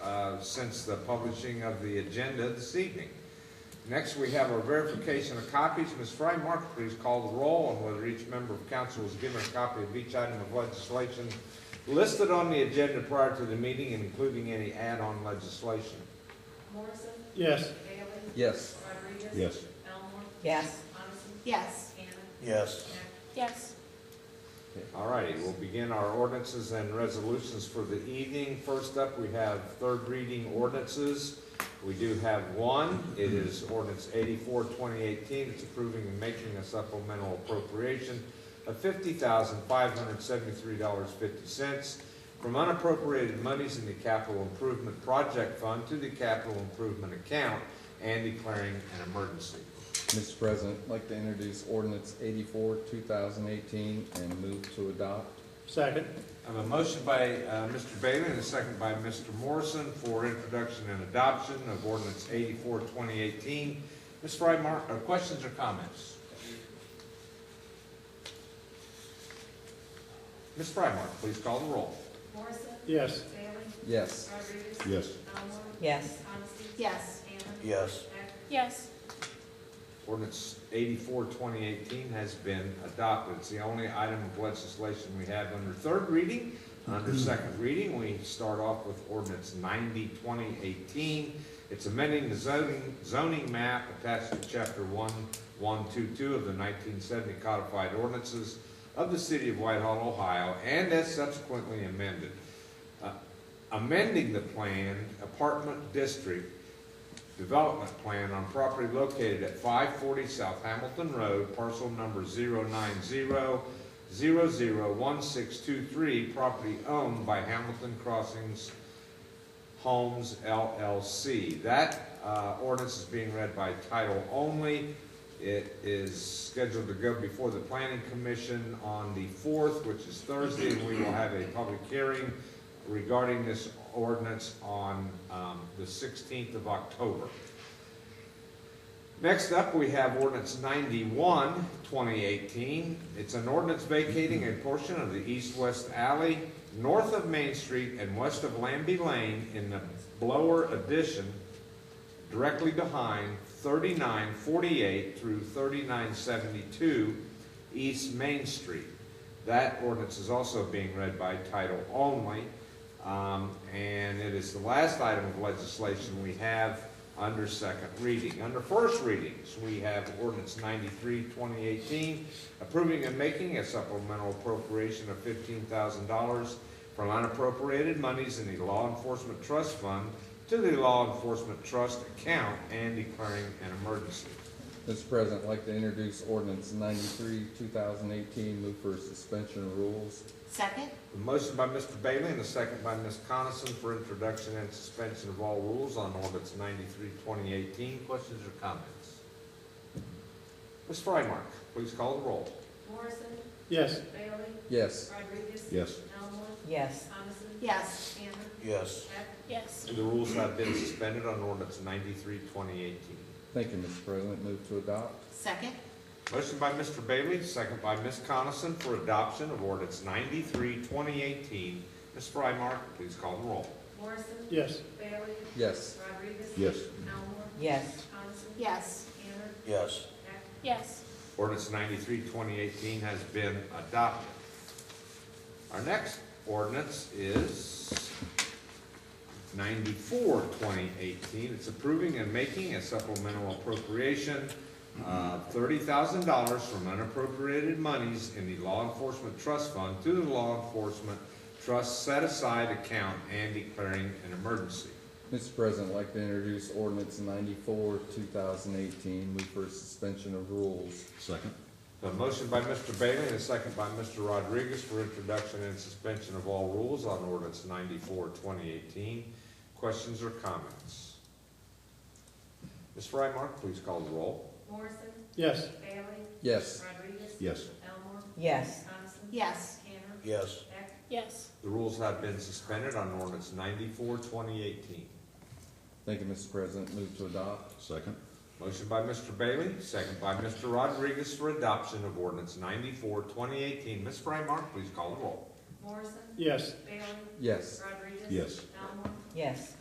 uh, since the publishing of the agenda this evening. Next, we have a verification of copies. Ms. Fry, Mark, please call the roll on whether each member of council was given a copy of each item of legislation listed on the agenda prior to the meeting, and including any add-on legislation. Morrison, Yes. Bailey, Yes. Rodriguez. Yes. Elmore, Yes. Coniston, Yes. Hannah, Yes. Peck, Yes. All righty, we'll begin our ordinances and resolutions for the evening. First up, we have third reading ordinances. We do have one. It is ordinance 84, 2018. It's approving and making a supplemental appropriation of $50,573.50 from unappropriated monies in the capital improvement project fund to the capital improvement account and declaring an emergency. Mr. President, I'd like to introduce ordinance eighty-four, two thousand eighteen, and move to adopt. Second. I have a motion by uh, Mr. Bailey and a second by Mr. Morrison for introduction and adoption of ordinance 84-2018. Ms. Fry, Mark, uh, questions or comments? Ms. Fry, Mark, please call the roll. Morrison, Yes. Bailey, Yes. Rodriguez. Yes. Elmore, Yes. Coniston. Yes. Hannah. Yes. Peck, Yes. Ordinance 84-2018 has been adopted. It's the only item of legislation we have under third reading. Under second reading, we start off with ordinance 90-2018. It's amending the zoning, zoning map attached to chapter one, one, two, two of the nineteen seventy codified ordinances of the city of Whitehall, Ohio, and as subsequently amended. Uh, Amending the planned apartment district development plan on property located at five forty South Hamilton Road, parcel number 090 001623, property owned by Hamilton Crossings Homes LLC. That, uh, ordinance is being read by title only. It is scheduled to go before the planning commission on the fourth, which is Thursday, and we will have a public hearing regarding this ordinance on um, the 16th of October. Next up, we have ordinance 91, 2018. It's an ordinance vacating a portion of the east-west alley north of Main Street and west of Lambie Lane in the Blower Addition directly behind 3948 through 3972 East Main Street. That ordinance is also being read by title only, um, and it is the last item of legislation we have under second reading. Under first readings, we have ordinance 93, 2018, approving and making a supplemental appropriation of $15,000 from unappropriated monies in the Law Enforcement Trust Fund to the Law Enforcement Trust account and declaring an emergency. Mr. President, I'd like to introduce ordinance ninety-three, two thousand eighteen, move for suspension of rules. Second? A motion by Mr. Bailey and a second by Ms. Coniston for introduction and suspension of all rules on ordinance 93, 2018. Questions or comments? Ms. Frymark, please call the roll. Morrison, Yes. Bailey, Yes. Rodriguez. Yes. Elmore, Yes. Coniston. Yes. Hannah, Yes. Peck, Yes. The rules have been suspended on ordinance 93, 2018. Thank you, Mr. President, move to adopt. Second? Motion by Mr. Bailey, second by Ms. Coniston for adoption of ordinance 93, 2018. Ms. Frymark, please call the roll. Morrison, Yes. Bailey, Yes. Rodriguez. Yes. Elmore, Yes. Coniston. Yes. Hannah, Yes. Peck, Yes. Ordinance 93, 2018 has been adopted. Our next ordinance is 94, 2018. It's approving and making a supplemental appropriation of $30,000 from unappropriated monies in the Law Enforcement Trust Fund to the Law Enforcement Trust Set-Aside Account and declaring an emergency. Mr. President, I'd like to introduce ordinance ninety-four, two thousand eighteen, move for suspension of rules. Second? A motion by Mr. Bailey and a second by Mr. Rodriguez for introduction and suspension of all rules on ordinance 94, 2018. Questions or comments? Ms. Frymark, please call the roll. Morrison, Yes. Bailey, Yes. Rodriguez. Yes. Elmore, Yes. Coniston. Yes. Hannah, Yes. Peck, Yes. The rules have been suspended on ordinance 94, 2018. Thank you, Mr. President, move to adopt. Second? Motion by Mr. Bailey, second by Mr. Rodriguez for adoption of ordinance 94, 2018. Ms. Frymark, please call the roll. Morrison, Yes. Bailey, Yes. Rodriguez. Yes. Elmore, Yes.